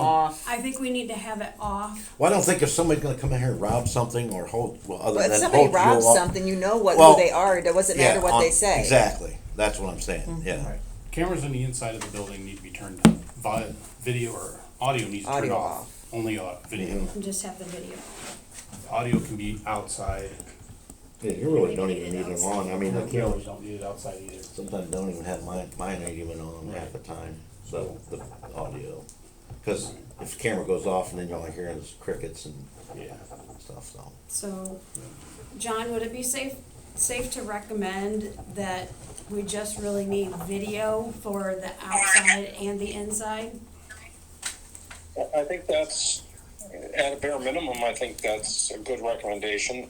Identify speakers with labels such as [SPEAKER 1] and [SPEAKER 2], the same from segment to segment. [SPEAKER 1] Uh,
[SPEAKER 2] off.
[SPEAKER 3] I think we need to have it off.
[SPEAKER 4] Well, I don't think if somebody's gonna come in here and rob something or hold, well, other
[SPEAKER 1] But
[SPEAKER 4] than
[SPEAKER 1] if somebody
[SPEAKER 4] hold you
[SPEAKER 1] robs
[SPEAKER 4] up-
[SPEAKER 1] something, you know what
[SPEAKER 4] Well,
[SPEAKER 1] who they are. It doesn't
[SPEAKER 4] Yeah, um,
[SPEAKER 1] matter what
[SPEAKER 4] on-
[SPEAKER 1] they say. Mm-hmm.
[SPEAKER 4] Exactly, that's what I'm saying, yeah.
[SPEAKER 5] Right. Cameras on the inside of the building need to be turned on. Vi- video or audio needs to be
[SPEAKER 1] Audio
[SPEAKER 5] off.
[SPEAKER 1] off. Mm-hmm.
[SPEAKER 5] Only uh, video.
[SPEAKER 3] and Just have the video.
[SPEAKER 5] Audio can be outside.
[SPEAKER 4] Yeah, you really don't even need them on, I mean, the
[SPEAKER 5] We always
[SPEAKER 4] cameras,
[SPEAKER 5] don't need it outside either.
[SPEAKER 4] sometimes don't even have mine, mine ain't even on half the time, so, the audio. Cause if the camera goes off and then you're only hearing is crickets and
[SPEAKER 5] Yeah.
[SPEAKER 4] stuff, so.
[SPEAKER 3] So, John, would it be safe, safe to recommend that we just really need video for the outside and the inside?
[SPEAKER 6] I- I think that's, at a bare minimum, I think that's a good recommendation.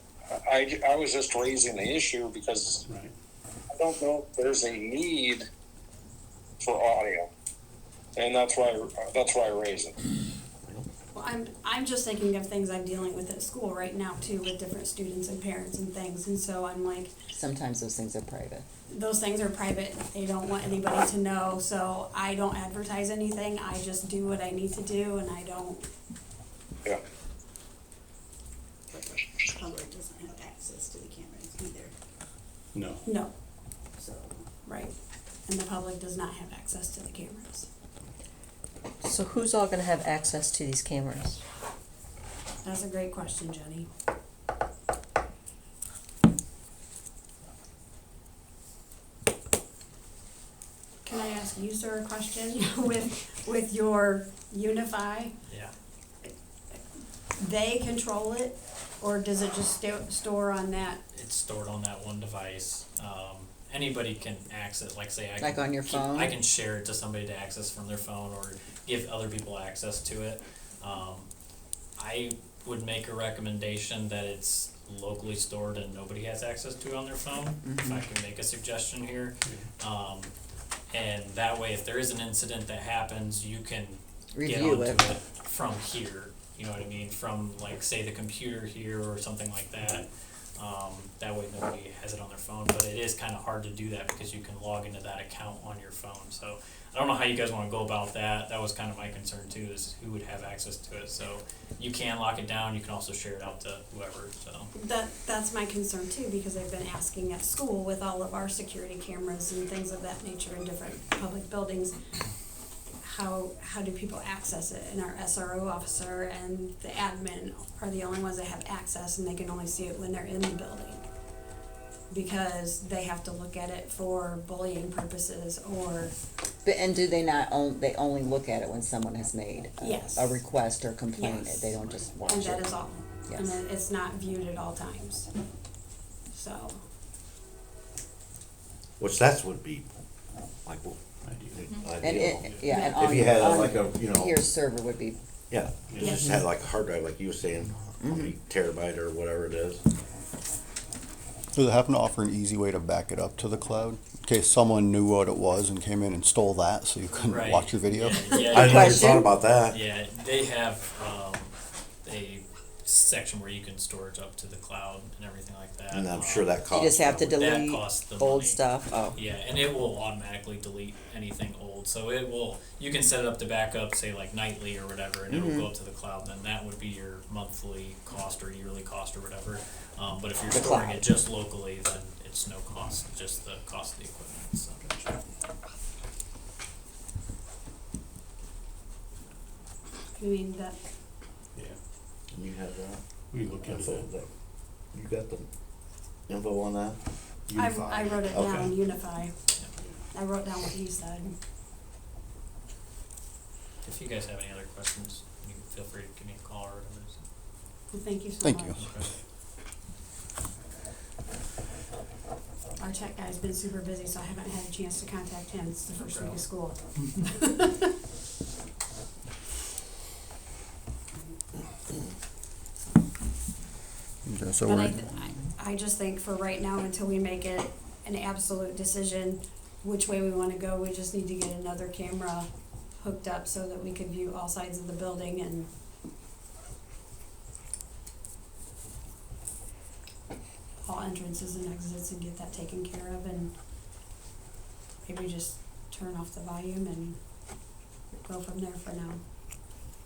[SPEAKER 6] I, I was just raising the issue because
[SPEAKER 5] Right.
[SPEAKER 6] I don't know if there's a need for audio. And that's why, that's why I raised it.
[SPEAKER 3] Well, I'm, I'm just thinking of things I'm dealing with at school right now too, with different students and parents and things, and so I'm like,
[SPEAKER 1] Sometimes those things are private.
[SPEAKER 3] those things are private, they don't want anybody to know, so I don't advertise anything, I just do what I need to do, and I don't,
[SPEAKER 6] Yeah.
[SPEAKER 7] public doesn't have access to the cameras either,
[SPEAKER 5] No.
[SPEAKER 3] no,
[SPEAKER 7] so.
[SPEAKER 3] right? And the public does not have access to the cameras.
[SPEAKER 8] So who's all gonna have access to these cameras?
[SPEAKER 3] That's a great question, Jenny. Can I ask you, sir, a question with, with your Unify?
[SPEAKER 9] Yeah.
[SPEAKER 3] They control it, or does it just sto- store on that?
[SPEAKER 9] It's stored on that one device. Um, anybody can access, like say I
[SPEAKER 1] Like
[SPEAKER 9] can
[SPEAKER 1] on your
[SPEAKER 9] keep-
[SPEAKER 1] phone?
[SPEAKER 9] I can share it to somebody to access from their phone or give other people access to it. Um, I would make a recommendation that it's locally stored and nobody has access to it on their phone. If I
[SPEAKER 1] Mm-hmm.
[SPEAKER 9] can make a suggestion here, um, and that way, if there is an incident that happens, you can get
[SPEAKER 1] Review
[SPEAKER 9] onto
[SPEAKER 1] it.
[SPEAKER 9] it from here. You know what I mean? From like say the computer here or something like that. Um, that way nobody has it on their phone, but it is kind of hard to do that because you can log into that account on your phone. So I don't know how you guys want to go about that. That was kind of my concern too, is who would have access to it. So you can lock it down. You can also share it out to whoever. So
[SPEAKER 3] That, that's my concern too, because I've been asking at school with all of our security cameras and things of that nature in different public buildings. How, how do people access it? And our SRO officer and the admin are the only ones that have access and they can only see it when they're in the building. Because they have to look at it for bullying purposes or,
[SPEAKER 1] But, and do they not own? They only look at it when someone has made a,
[SPEAKER 3] Yes.
[SPEAKER 1] a request or complaint.
[SPEAKER 3] Yes.
[SPEAKER 1] They don't just watch
[SPEAKER 3] and
[SPEAKER 1] it.
[SPEAKER 3] that is all. And
[SPEAKER 1] Yes.
[SPEAKER 3] it- it's not viewed at all times. So,
[SPEAKER 4] Which that's would be, like, well,
[SPEAKER 5] I do.
[SPEAKER 1] Mm-hmm. and it, um,
[SPEAKER 4] ideal.
[SPEAKER 1] yeah, and on,
[SPEAKER 4] If you had
[SPEAKER 1] on
[SPEAKER 4] like a, you know,
[SPEAKER 1] your server would be
[SPEAKER 4] yeah, you
[SPEAKER 5] Yeah.
[SPEAKER 4] just had like a hard drive, like you were saying, how
[SPEAKER 1] Mm-hmm.
[SPEAKER 4] many terabyte or whatever it is.
[SPEAKER 10] Does it happen to offer an easy way to back it up to the cloud? In case someone knew what it was and came in and stole that so you couldn't
[SPEAKER 9] right.
[SPEAKER 10] watch your video?
[SPEAKER 9] Yeah, yeah,
[SPEAKER 4] I
[SPEAKER 9] yeah.
[SPEAKER 4] never thought about that.
[SPEAKER 9] Yeah, they have um, a section where you can storage up to the cloud and everything like that.
[SPEAKER 4] And I'm
[SPEAKER 9] Um,
[SPEAKER 4] sure that
[SPEAKER 1] you
[SPEAKER 4] costs.
[SPEAKER 1] just have to
[SPEAKER 4] probably-
[SPEAKER 9] That
[SPEAKER 1] delete
[SPEAKER 9] costs the
[SPEAKER 1] old
[SPEAKER 9] money.
[SPEAKER 1] stuff. Oh,
[SPEAKER 9] Yeah, and it will automatically delete anything old. So it will. You can set it up to backup, say like nightly or whatever, and
[SPEAKER 1] Mm-hmm.
[SPEAKER 9] it'll go up to the cloud. Then that would be your monthly cost or yearly cost or whatever. Um, but if you're
[SPEAKER 1] The
[SPEAKER 9] storing
[SPEAKER 1] cloud.
[SPEAKER 9] it just locally, then it's no cost, just the cost of the equipment. So.
[SPEAKER 3] I mean, that,
[SPEAKER 5] Yeah.
[SPEAKER 4] You have that?
[SPEAKER 5] We look
[SPEAKER 4] That's
[SPEAKER 5] into
[SPEAKER 4] all
[SPEAKER 5] it.
[SPEAKER 4] that- You got the info on that?
[SPEAKER 3] I,
[SPEAKER 5] Unify.
[SPEAKER 3] I wrote it
[SPEAKER 4] Okay.
[SPEAKER 3] down, unify. I wrote down what you said.
[SPEAKER 9] If you guys have any other questions, you can feel free to give me a call or whatever. So.
[SPEAKER 3] Well, Thank you so much.
[SPEAKER 10] Thank you.
[SPEAKER 3] Our tech guy's been super busy, so I haven't had a chance to contact him. It's the first week of school.
[SPEAKER 10] Okay, so
[SPEAKER 3] But I,
[SPEAKER 10] we're,
[SPEAKER 3] th- I I just think for right now, until we make it an absolute decision which way we wanna go, we just need to get another camera hooked up so that we can view all sides of the building and all entrances and exits and get that taken care of and maybe just turn off the volume and go from there for now.